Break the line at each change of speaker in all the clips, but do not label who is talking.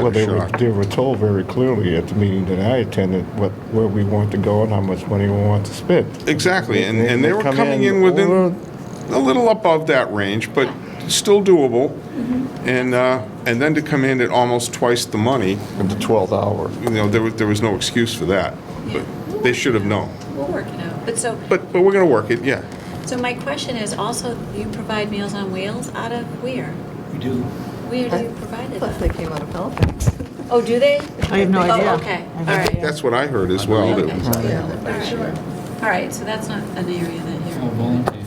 Well, they were,
shocked.
they were told very clearly at the meeting that I attended what, where we want to go and how much money we want to spend.
Exactly, and, and they were
come
coming in
over-
within, a little above that range, but still doable.
Mm-hmm.
And, uh, and then to come in at almost twice the money,
In the 12th hour.
you know, there was, there was no excuse for that. But they should have known.
We'll work it out. But so,
But, but we're gonna work it, yeah.
so my question is also, you provide Meals on Wheels out of where?
We do.
Where do you provide it?
But
at?
they came out of Halifax.
Oh, do they?
I have no idea.
Oh, okay, all right.
That's what I heard as well.
Okay.
that-
All right, so that's not an area that
All
you're,
volunteer.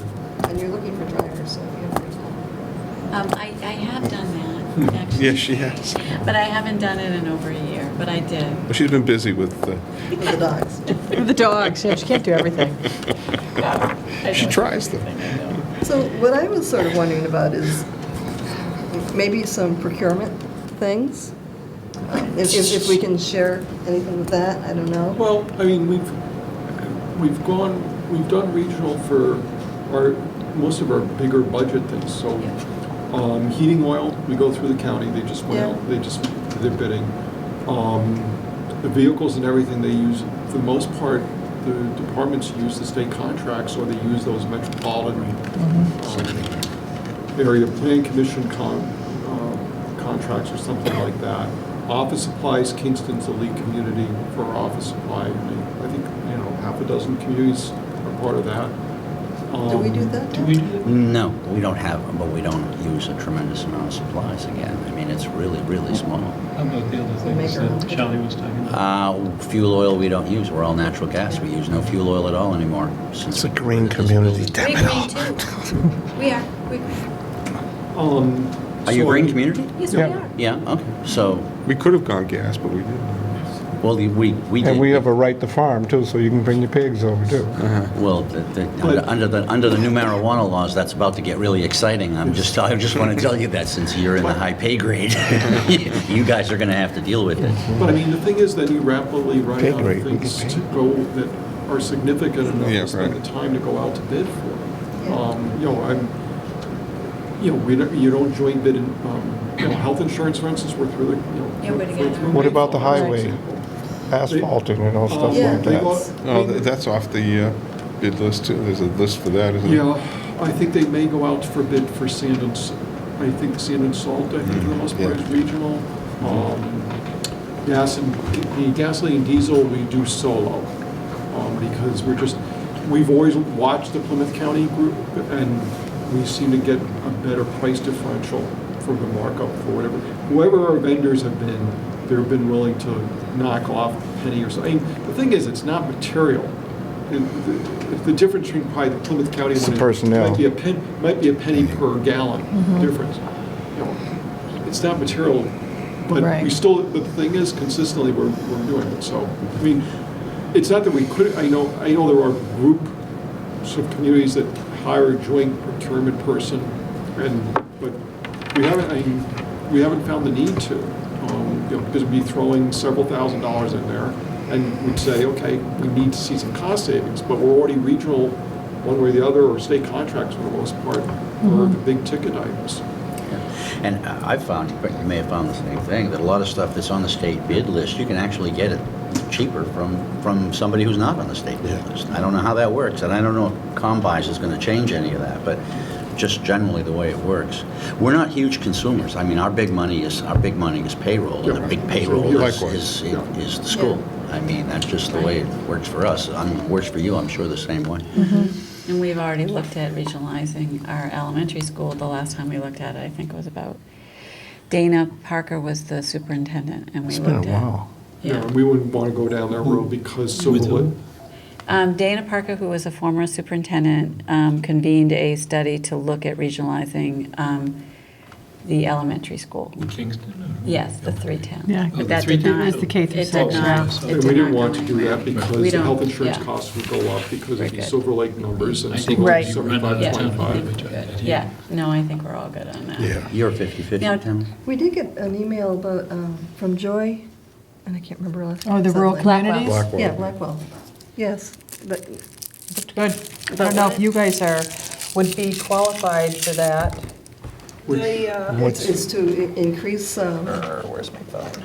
And you're looking for drivers, so you have to.
um, I, I have done that, actually.
Hmm. Yes, she has.
But I haven't done it in over a year, but I did.
But She's been busy with, uh,
With the dogs.
The dogs, yeah, she can't do everything.
she tries though.
So what I was sort of wondering about is maybe some procurement things? Um, If, if if we can share anything with that, I don't know.
Well, I mean, we've, we've gone, we've done regional for our, most of our bigger budget things, so, um, heating oil, we go through the county, they just went
Yeah.
out, they just, they're bidding. Um, the vehicles and everything they use, for the most part, the departments use the state contracts, or they use those metropolitan um, area plan commission con, uh, contracts or something like that. Office supplies, Kingston's a lead community for office supply. I I think, you know, half a dozen communities are part of that.
Do we do
Um,
that?
Do we do that?
No, we don't have, them, but we don't use a tremendous amount of supplies again. I mean, it's really, really small.
How about the other
We make
things
our own.
that Charlie was talking about?
Uh, Fuel oil we don't use, we're all natural gas. We use no fuel oil at all anymore.
It's a green community, damn
We're
it
green
all.
too. We are, we,
Um,
Are you a
so-
green community?
yes, we
Yeah.
are.
Yeah, okay. So,
We could have gone gas, but we didn't.
well, the- we, we did.
And we have a right to farm too, so you can bring your pigs over too.
Well, the- the- under- under the, under the new marijuana laws, that's about to get really exciting. I'm just, I just want to tell you that since you're in the high pay grade, you guys are going to have to deal with it.
But I mean, the thing is, then you rapidly run
Pay
out
grade,
of
we
things
can pay.
to go that are significant enough
Yeah,
to spend
right.
the time to go out to bid for.
Yeah.
Um, You know, I'm, you know, we don't, you don't join bid in, um, you know, health insurance, for instance, we're through the, you know.
Yeah, we're
we're
together.
through
What about the
Mayflower, for
highway?
example.
Asphalting and all stuff
Yeah.
like
Um, They go-
that.
Oh, th- that's off the uh, bid list too. There's a list for that, isn't there?
Yeah, I think they may go out for bid for sand and, s- I think sand and salt, I think for the most part
Yeah.
is regional. Um, Gas and, the gasoline and diesel, we do solo, um, because we're just, we've always watched the Plymouth County group, and we seem to get a better price differential for the markup for whatever. Whoever our vendors have been, they've been willing to knock off a penny or something. The thing is, it's not material. And the- The difference between probably the Plymouth County
It's the
one
personnel.
Might be a pen, might be a penny per gallon difference. You know, It's not material, but we
Right.
still, the thing is consistently, we're, we're doing it, so, I mean, it's not that we could, I know, I know there are groups of communities that hire a joint procurement person, and, but we haven't, I, mean, we haven't found the need to, um, you know, because we'd be throwing several thousand dollars in there, and we'd say, okay, we need to see some cost savings, but we're already regional, one way or the other, or state contracts for the most part, or the big ticket items.
And I I found, but you may have found the same thing, that a lot of stuff that's on the state bid list, you can actually get it cheaper from, from somebody who's not on the state bid list. I don't know how that works, and I don't know if Combuys is gonna change any of that, but just generally the way it works. We're not huge consumers. I mean, our big money is, our big money is payroll, and the big payroll is,
Likewise.
is, is the school. I mean, that's just the way it works for us. I mean, it works for you, I'm sure, the same way.
And we've already looked at regionalizing our elementary school. The last time we looked at it, I think it was about, Dana Parker was the superintendent and we
It's
looked at.
been a while.
You know,
Yeah.
and we wouldn't want to go down that
Mm-hmm.
road because Silverwood,
Um, Dana Parker, who was a former superintendent, um, convened a study to look at regionalizing um, the elementary school.
In Kingston? uh, or-
Yes, the three towns.
Yeah.
Oh, the
But that
three
did not.
towns. It was
the K through
it did not-
six, yeah.
it
and
did
Oh, we
not
didn't want
go
to do
anywhere.
that because
We
the health
don't,
insurance
yeah.
costs would go up because
Very
of the
good.
Silver Lake numbers and
I think
Silver Lake
Right.
we run out of town.
75.
Yeah, no, I think we're all good on that.
Yeah.
You're 50/50,
Now-
Tim?
We did get an email about, um, from Joy, and I can't remember her last.
Oh,
name,
the rural
something like-
communities?
Blackwell.
Yeah, Blackwell, yes, but
Good. I don't know if you guys are, would be qualified for that.
Which-
It's it's to i- increase um,
uh, um, Err, Where's my phone?